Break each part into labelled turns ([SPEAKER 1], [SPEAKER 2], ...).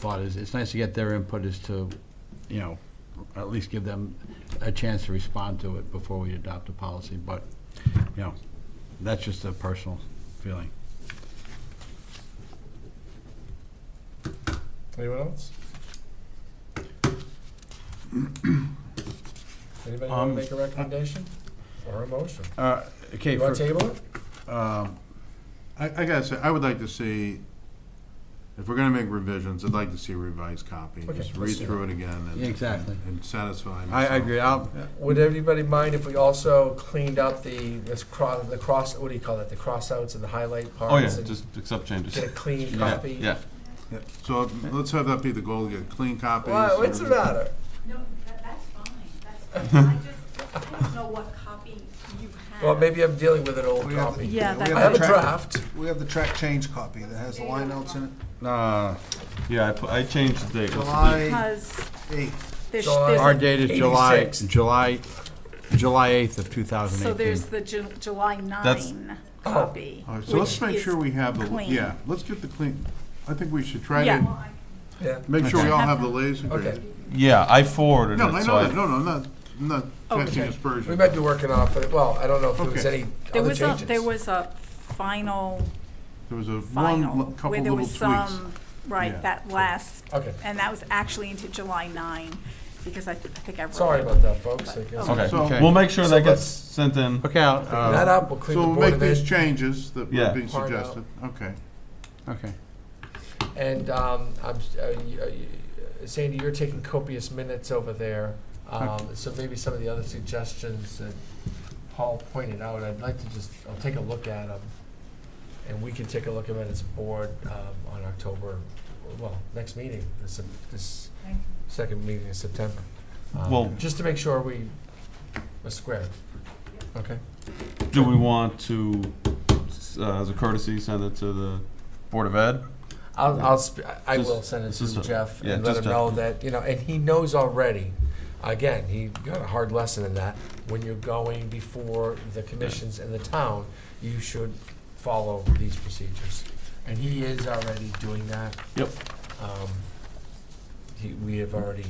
[SPEAKER 1] thought is, it's nice to get their input as to, you know, at least give them a chance to respond to it before we adopt a policy, but, you know, that's just a personal feeling.
[SPEAKER 2] Anyone else? Anybody want
[SPEAKER 1] Um,
[SPEAKER 2] to make a recommendation or a motion?
[SPEAKER 1] Uh, okay,
[SPEAKER 2] You want
[SPEAKER 1] for,
[SPEAKER 2] to table it?
[SPEAKER 1] um,
[SPEAKER 3] I, I gotta say, I would like to see, if we're gonna make revisions, I'd like to see a revised copy.
[SPEAKER 2] Okay,
[SPEAKER 3] Just
[SPEAKER 2] let's
[SPEAKER 3] read
[SPEAKER 2] do
[SPEAKER 3] through it again and.
[SPEAKER 1] Yeah, exactly.
[SPEAKER 3] And satisfy
[SPEAKER 1] I,
[SPEAKER 3] myself.
[SPEAKER 1] I agree, I'll,
[SPEAKER 2] Would everybody mind if we also cleaned up the, this cross, the cross, what do you call that, the crossouts and the highlight parts?
[SPEAKER 4] Oh, yeah,
[SPEAKER 2] and
[SPEAKER 4] just accept changes.
[SPEAKER 2] Get a clean
[SPEAKER 4] Yeah,
[SPEAKER 2] copy?
[SPEAKER 4] Yeah,
[SPEAKER 3] Yeah, So let's have that be the goal, get clean copies.
[SPEAKER 2] Why, what's the matter?
[SPEAKER 5] No, that, that's fine, that's fine. I just, I don't know what copy you have.
[SPEAKER 2] Well, maybe I'm dealing with an old
[SPEAKER 6] We have the-
[SPEAKER 2] copy.
[SPEAKER 7] Yeah,
[SPEAKER 6] we
[SPEAKER 7] that-
[SPEAKER 2] I have a
[SPEAKER 6] the track-
[SPEAKER 2] draft.
[SPEAKER 6] We have the track change copy that has the line outs in it,
[SPEAKER 4] uh, yeah, I, pu- I changed the date. What's the
[SPEAKER 6] July eighth.
[SPEAKER 7] Because
[SPEAKER 4] date?
[SPEAKER 7] there's,
[SPEAKER 2] July-
[SPEAKER 7] there's-
[SPEAKER 1] our date is July,
[SPEAKER 2] 86.
[SPEAKER 1] July, July eighth of two thousand
[SPEAKER 7] so
[SPEAKER 1] eighteen.
[SPEAKER 7] there's the Ju- July
[SPEAKER 4] That's-
[SPEAKER 7] nine
[SPEAKER 2] Oh.
[SPEAKER 7] copy.
[SPEAKER 3] All right, so let's
[SPEAKER 7] which
[SPEAKER 3] make
[SPEAKER 7] is
[SPEAKER 3] sure we have the,
[SPEAKER 7] clean.
[SPEAKER 3] yeah, let's get the clean, I think we should try
[SPEAKER 7] Yeah.
[SPEAKER 3] to,
[SPEAKER 2] Yeah,
[SPEAKER 3] make sure we all
[SPEAKER 7] Okay.
[SPEAKER 3] have the latest and
[SPEAKER 2] okay.
[SPEAKER 3] greatest.
[SPEAKER 4] Yeah, I forwarded
[SPEAKER 3] No,
[SPEAKER 4] it,
[SPEAKER 3] I
[SPEAKER 4] so
[SPEAKER 3] know that,
[SPEAKER 4] I,
[SPEAKER 3] no, no, I'm not, I'm not casting
[SPEAKER 7] Okay.
[SPEAKER 2] We
[SPEAKER 3] aspersions.
[SPEAKER 2] might be working off, of it. well, I don't know if there was
[SPEAKER 3] Okay.
[SPEAKER 2] any
[SPEAKER 7] There
[SPEAKER 2] other
[SPEAKER 7] was a,
[SPEAKER 2] changes.
[SPEAKER 7] there was a final,
[SPEAKER 3] There was a one,
[SPEAKER 7] final,
[SPEAKER 3] l- couple
[SPEAKER 7] where there
[SPEAKER 3] little
[SPEAKER 7] was
[SPEAKER 3] tweaks.
[SPEAKER 7] some,
[SPEAKER 3] Yeah.
[SPEAKER 7] right, that last,
[SPEAKER 2] Okay,
[SPEAKER 7] and that was actually into July nine, because I, th- I think I wrote.
[SPEAKER 2] sorry
[SPEAKER 7] it.
[SPEAKER 2] about that, folks. I guess.
[SPEAKER 4] okay,
[SPEAKER 3] So-
[SPEAKER 4] we'll make sure
[SPEAKER 2] So
[SPEAKER 4] that gets
[SPEAKER 2] let's-
[SPEAKER 4] sent in.
[SPEAKER 1] Okay, I'll,
[SPEAKER 2] That
[SPEAKER 1] uh,
[SPEAKER 2] up, we'll clean
[SPEAKER 3] So
[SPEAKER 2] the
[SPEAKER 3] we'll
[SPEAKER 2] board
[SPEAKER 3] make
[SPEAKER 2] of
[SPEAKER 3] these
[SPEAKER 2] ed.
[SPEAKER 3] changes that
[SPEAKER 4] Yeah.
[SPEAKER 3] were being
[SPEAKER 2] Part out.
[SPEAKER 3] suggested, okay.
[SPEAKER 1] okay.
[SPEAKER 2] And um, I'm, s- uh, you- uh, you- uh, Sandy, you're taking copious minutes over there. Um, so maybe some of the other suggestions that Paul pointed out, I'd like to just, I'll take a look at them. And we can take a look at it as a board um, on October, well, next meeting, this, Sep- this second meeting in September. Um,
[SPEAKER 4] Well-
[SPEAKER 2] Just to make sure we are square. Okay?
[SPEAKER 4] Do we want to, s- uh, as a courtesy, send it to the Board of Ed?
[SPEAKER 2] I'll, I'll, sp- I I
[SPEAKER 4] Just-
[SPEAKER 2] will send it
[SPEAKER 4] just
[SPEAKER 2] to
[SPEAKER 4] a-
[SPEAKER 2] Jeff
[SPEAKER 4] yeah,
[SPEAKER 2] and let
[SPEAKER 4] just
[SPEAKER 2] him
[SPEAKER 4] Jeff.
[SPEAKER 2] know that, you know, and he knows already, again, he got a hard lesson in that. When you're going before the commissions and the town, you should follow these procedures. And he is already doing that.
[SPEAKER 4] Yep.
[SPEAKER 2] Um, he, we have already,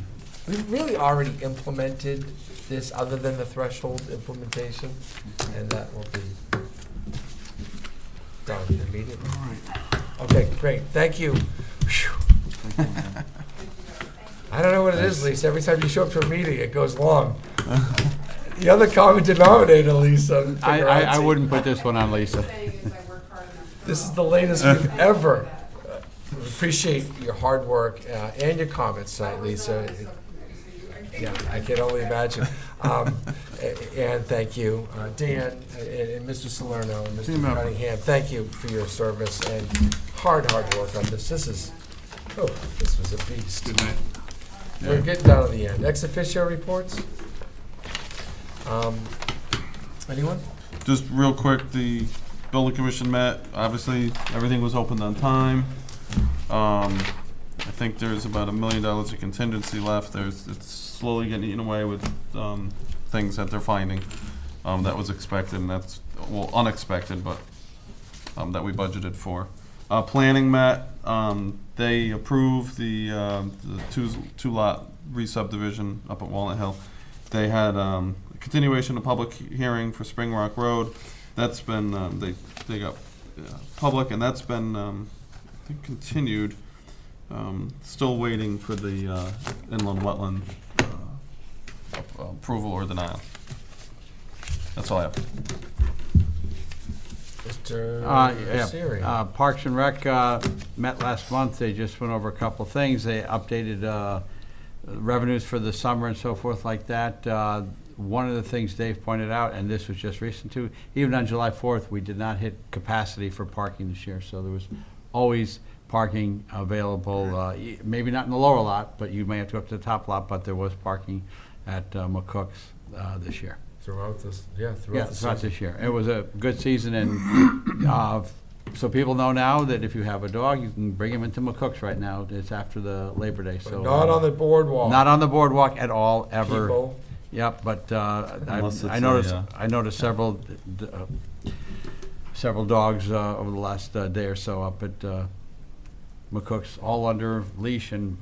[SPEAKER 2] we've really already implemented this, other than the threshold implementation, and that will be done immediately.
[SPEAKER 3] All right.
[SPEAKER 2] Okay, great, thank you. Phew. I don't know what it is, Lisa, every time you show up to a meeting, it goes long. The other common denominator, Lisa.
[SPEAKER 1] I, I, I
[SPEAKER 2] figuracy.
[SPEAKER 1] wouldn't put this one on Lisa.
[SPEAKER 2] This is the latest we've ever. uh, Appreciate your hard work uh, and your comments tonight, Lisa. Yeah, I can only imagine. Um, a- And thank you, uh, Dan, and- and Mr. Salerno, and Mr.
[SPEAKER 3] Team effort.
[SPEAKER 2] Cunningham. Thank you for your service and hard, hard work on this. This is, oh, this was a beast.
[SPEAKER 3] Good night.
[SPEAKER 2] We're getting down to the end. Ex officio reports? Um, Anyone?
[SPEAKER 4] Just real quick, the building commission met, obviously, everything was opened on time. Um, I think there's about a million dollars of contingency left, there's, it's slowly getting eaten away with, um, things that they're finding. Um, that was expected, and that's, well, unexpected, but, um, that we budgeted for. Uh, planning met, um, they approved the, um, the two, two lot re-subdivision up at Walnut Hill. They had, um, a continuation of public he- hearing for Spring Rock Road, that's been, um, they, they got, uh, public, and that's been, um, I think continued. Um, still waiting for the, uh, inland wetland, uh, ap- approval or denial. That's all I have.
[SPEAKER 2] Mr.
[SPEAKER 1] Uh, yeah,
[SPEAKER 2] Siri?
[SPEAKER 1] uh, Parks and Rec uh, met last month, they just went over a couple of things, they updated uh, revenues for the summer and so forth like that. Uh, One of the things Dave pointed out, and this was just recent too, even on July 4th, we did not hit capacity for parking this year, so there was always parking available, uh, y- maybe not in the lower lot, but you may have to go up to the top lot, but there was parking at uh, McCook's uh, this year.
[SPEAKER 2] Throughout this, yeah,
[SPEAKER 1] Yeah,
[SPEAKER 2] throughout the
[SPEAKER 1] throughout
[SPEAKER 2] season.
[SPEAKER 1] this year. It was a good season, and uh, so people know now that if you have a dog, you can bring him into McCook's right now. It's after the Labor Day, so. uh,
[SPEAKER 2] But not on the boardwalk.
[SPEAKER 1] Not on the boardwalk at all, ever.
[SPEAKER 2] people.
[SPEAKER 1] Yep, but uh,
[SPEAKER 4] Unless
[SPEAKER 1] I
[SPEAKER 4] it's
[SPEAKER 1] I
[SPEAKER 4] a,
[SPEAKER 1] noticed,
[SPEAKER 4] uh,
[SPEAKER 1] I noticed several, d- uh, several dogs uh, over the last uh, day or so up at uh, McCook's all under leash and